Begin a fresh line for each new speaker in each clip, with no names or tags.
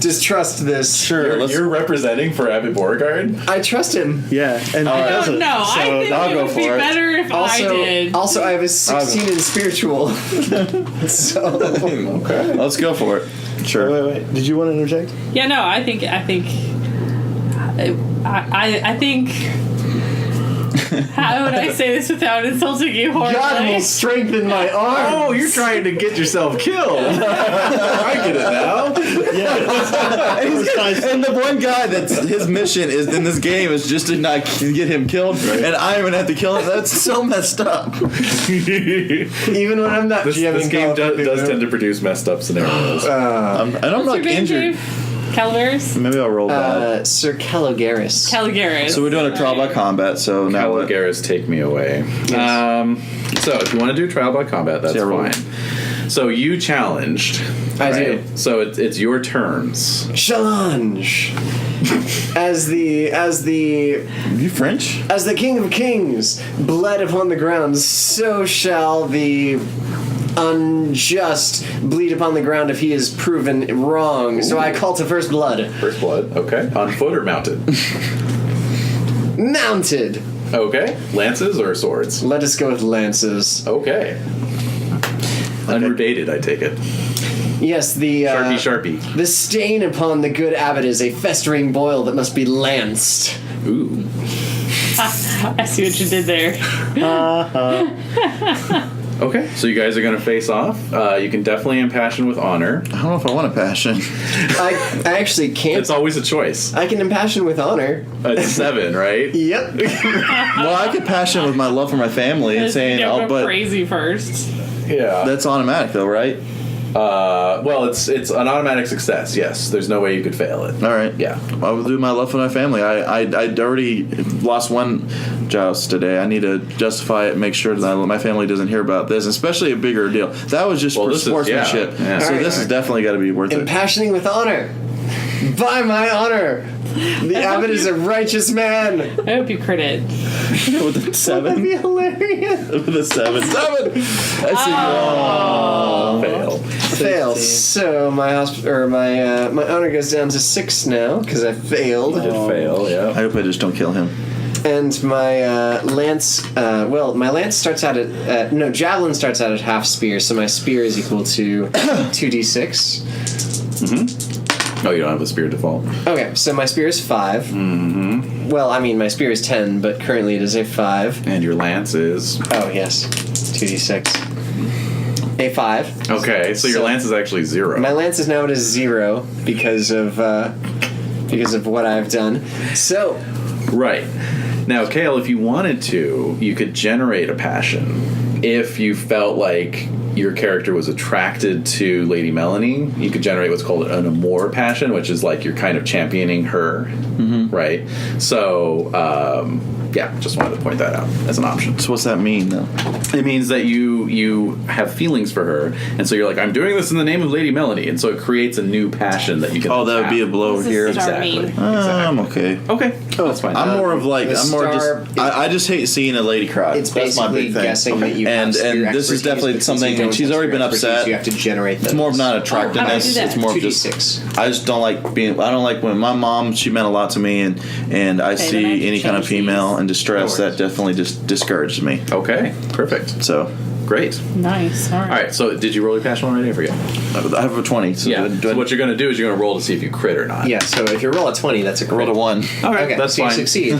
just trust this.
Sure.
You're,
let's-
you're representing for Abby Beauregard.
I trust him.
yeah. And
right. No,
he doesn't.
Oh no, I
So
think
I'll
it
go
would
for
be
it.
better if I
Also,
did.
also I have a 16 in spiritual. so
Okay.
Let's go for it.
Sure.
Wait, wait, wait. Did you want to interject?
yeah, no, I think I think I I, I think. How would I say this without insulting you
God will
horribly?
strengthen my arm.
Oh, you're trying to get yourself killed. I get it now.
and the one guy that's his mission is in this game is just to not k- get him killed, and I'm gonna have to kill him. That's so messed up.
this,
Even when I'm not GMing
this game
Call of
do,
Duty,
does
though.
tend to produce messed up scenarios.
I'm, I don't
What's your
like
name,
injured.
Dave? Calaveras?
Maybe I'll roll bad.
Uh, Sir Calogaris.
Calaveras.
So we're doing a trial by combat. So now what?
Caligaris, take me away. Um, so if you want to do trial by combat, that's
Yeah, roll.
fine. So you challenged.
I do.
So it's it's your terms.
Challenge. as the as the
You French?
as the King of Kings bled upon the ground, so shall the unjust bleed upon the ground if he is proven wrong. So I call to first blood.
First blood. Okay. On foot or mounted?
Mounted.
okay. Lances or swords?
Let us go with lances.
Okay. Unrebated, I take it.
Yes, the uh,
Sharpie,
the stain upon the good abbot is a festering boil that must be lanced.
sharpie. Ooh.
I see what you did there.
Okay, so you guys are gonna face off. Uh, you can definitely impassion with honor.
I don't know if I want a passion.
I, I actually can't.
It's always a choice.
I can impassion with honor.
It's seven, right?
Yep.
well, I could passion with my love for my family and saying, "Oh,
Don't go
but
crazy first.
Yeah.
that's automatic though, right?"
Uh, well, it's it's an automatic success. Yes, there's no way you could fail it.
All right.
Yeah.
I will do my love for my family. I I I already lost one joust today. I need to justify it, make sure that my family doesn't hear about this, especially a bigger deal. That was just
Well,
for
this is- yeah,
sportsmanship.
yeah.
So
All right.
this is definitely got to be worth it.
Impassioning with honor. By my honor, the abbot is a righteous man.
I hope you crit it.
with a
That'd
seven,
be hilarious.
with a seven, seven. That's
Oh. Fail.
Fail. So my hosp- or my uh, my honor goes down to six now because I failed,
fail.
I
Yeah.
hope I just don't kill him.
and my uh, lance. Uh, well, my lance starts out at uh, no javelin starts out at half spear, so my spear is equal to two d six.
Oh, you don't have a spear default.
Okay, so my spear is 5 Mm-hmm. Well, I mean my spear is ten, but currently it is a five.
And your lance is
Oh yes, two d six. A five.
okay. So your
So-
lance is actually zero.
My lance is now at a zero because of uh, because of what I've done. So
Right. Now, Kale, if you wanted to, you could generate a passion. If you felt like your character was attracted to Lady Melanie, you could generate what's called an amour passion, which is like you're kind of championing her,
Mm-hmm.
right? So, um, yeah, just wanted to point that out as an option.
So what's that mean though?
It means that you you have feelings for her, and so you're like, I'm doing this in the name of Lady Melanie, and so it creates a new passion that you can.
Oh, that would be a blow
This is
here.
the dark-
exactly.
Darlene.
Ah, I'm
exactly.
okay.
Okay, that's fine. Uh,
I'm more of like
the
I'm more
star-
just I, I just hate seeing a lady cry.
it's
That's my
basically
big thing.
guessing that you
and
have spear
and
expertise,
this is
but
definitely
since
something.
you don't
and she's
have
already been
spear expertise,
upset.
You have to generate.
It's more of not attractiveness.
that?
it's more of
two d
just.
six.
I just don't like being. I don't like when my mom. She meant a lot to me, and and I
then I
see
can
any kind of
change these.
female in distress.
No
That definitely just discouraged me.
okay, perfect,
So
great.
Nice. All right.
All right, so did you roll your passion already? I forget.
I have a twenty. So do I- do I
so what you're going to do is you're going to roll to see if you crit or not.
Yeah. So if you roll a twenty, that's a
roll
crit.
to one.
All right,
Okay,
that's
so
fine.
you succeed.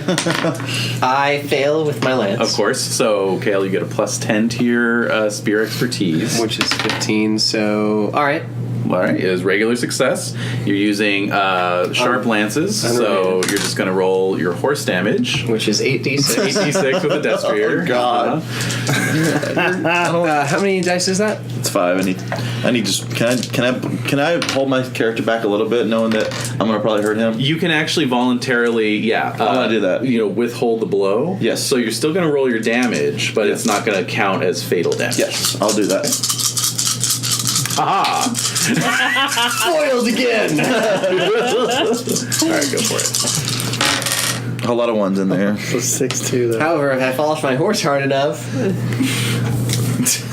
I fail with my lance,
Of course. So, Kale, you get a plus 10 to your uh, spear expertise.
which is fifteen. So all right,
all right, is regular success. You're using uh, sharp lances, so
unrelated.
you're just going to roll your horse damage.
which is eight d six.
86 with a Uh-huh. destrier.
Oh, God.
Uh, how many dice is that?
It's five. I need. I need just. Can I? Can I? Can I hold my character back a little bit, knowing that I'm gonna probably hurt him?
You can actually voluntarily, yeah, uh,
wanna do that.
You know, withhold the blow.
Yes.
So you're still going to roll your damage, but it's
Yes.
not going to count as fatal damage.
Yes, I'll do that.
Aha!
Foiled again.
All right, go for it.
A whole lot of ones in there.
So six two though.
However, if I fall off my horse hard enough,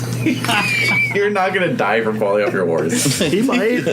You're not going to die from falling off your horse.
He might.